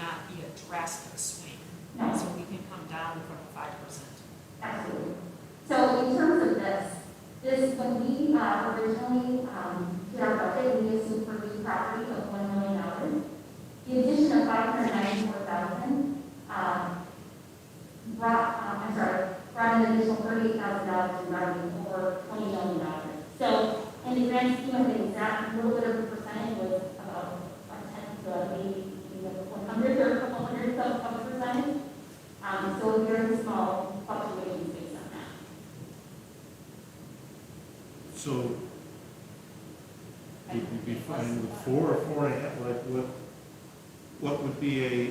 a drastic swing, so we can come down from the five percent. Absolutely. So in terms of this, this, when we uh, originally um, did our budget, we assumed for each property of one million dollars. The addition of five hundred ninety-four thousand um, brought, uh, I'm sorry, brought an additional thirty-eight thousand dollars in revenue or twenty million dollars. So in the grand scheme of things, that little bit of a percentage was about a tenth of maybe one hundred or a couple hundred of of a percentage. Um, so very small fluctuations based on that. So would you be fine with four or four and a half, like what, what would be a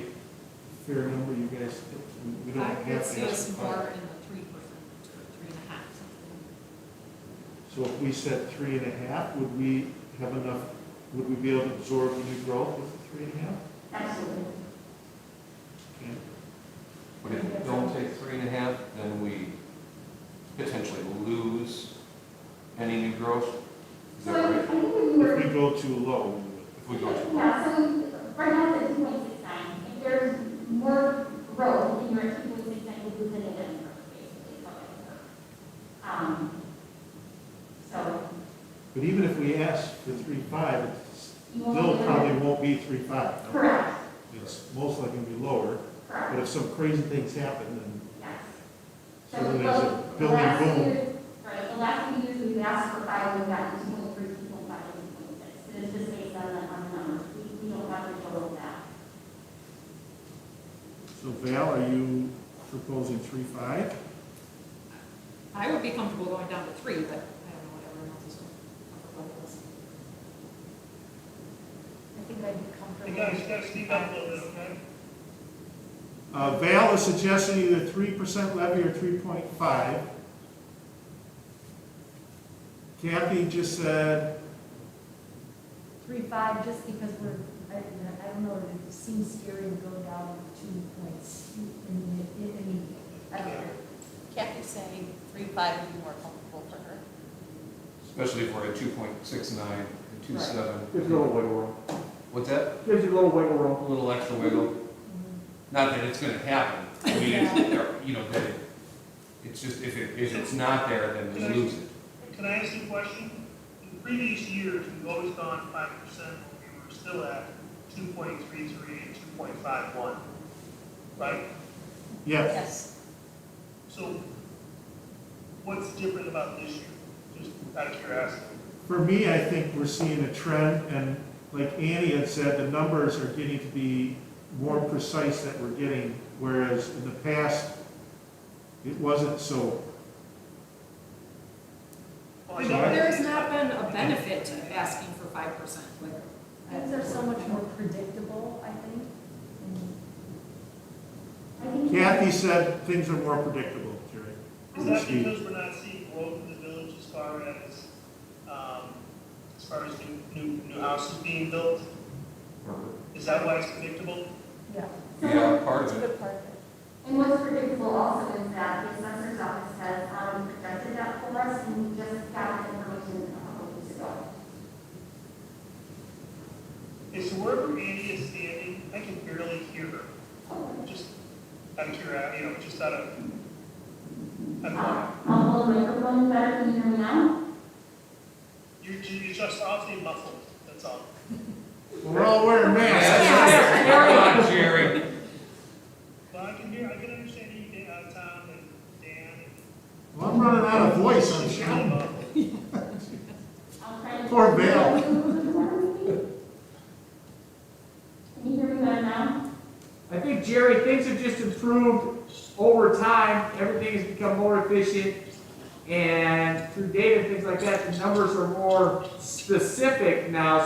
fair number you guys, think? we don't I have to would see ask us for five. more in the three percent, or three and a half, something. So if we set three and a half, would we have enough, would we be able to absorb the new growth with the three and a half? Absolutely. Okay. But if we don't take three and a half, then we potentially lose any new growth. Is So that I I right? think when we If were, we go too low, we would. If we go to, yeah, so right now it's two point six nine. If there's more growth in your two point six nine, you lose an event growth, basically, is how it works. Um, so but even if we ask for three five, it's you won't. still be able to- probably won't be three five. Correct, It's most likely gonna be lower, but correct, if some crazy things happen, then yes. So then there's a the building last boom. year- Right, the last few years, we've asked for five, we've gotten two point three, two point five, two point six. And it's just based on the, on the numbers. We, we don't have control of that. So Val, are you proposing three five? I would be comfortable going down to three, but I don't know what everyone else is doing. comfortable with. I think I'd be Can comfortable. you step, speak up a little bit, man? Uh, Val is suggesting either three percent levy or three point five. Kathy just said, Three, five, just because we're, I, I don't know, it seems scary to go down two points. in the- in- I mean, I don't know. Kathy's saying three, five would be more comfortable for her. especially if we're at two point six nine and two Gives you a seven. little wiggle room. What's that? Gives you a little wiggle A room. little extra wiggle. Not that it's gonna happen. I mean, it's, you know, that it, it's just, if it, if it's not there, then we lose it. Can I ask you a question? In previous years, we've always gone five percent, we were still at two point three three and two point five one, right? yes, Yes. So what's different about this year? Just out of curiosity. for me, I think we're seeing a trend, and like Annie had said, the numbers are getting to be more precise that we're getting, whereas in the past, it wasn't so. Well, I But know- There has not been a benefit to asking for five percent, like, Things are so much more predictable, I think. And I think Kathy said things are more predictable, Jerry. Is that because we're not seeing growth in the village as far as, um, as far as new, new, new houses being built? Is that why it's predictable? Yeah. Yeah, part It's a of it. good part of it. And what's predictable also is that the assessor's office has um, projected that for us, and we just got the information a couple weeks ago. Is wherever Andy is standing, I can barely hear her, just out of curiosity, you know, just out of. I'm- Uh, I'll hold the microphone better, can you hear me now? You're, you're just awfully muffled, that's all. We're all wearing masks. Come on, Jerry. But I can hear, I can understand you, Dan, uh, Tom and Dan. and- Well, I'm running out of voice, I'm It's shouting. really muffled. I'll try to. Poor Bill. Can you hear me better now? I think, Jerry, things have just improved over time. Everything has become more efficient. And through data and things like that, the numbers are more specific now,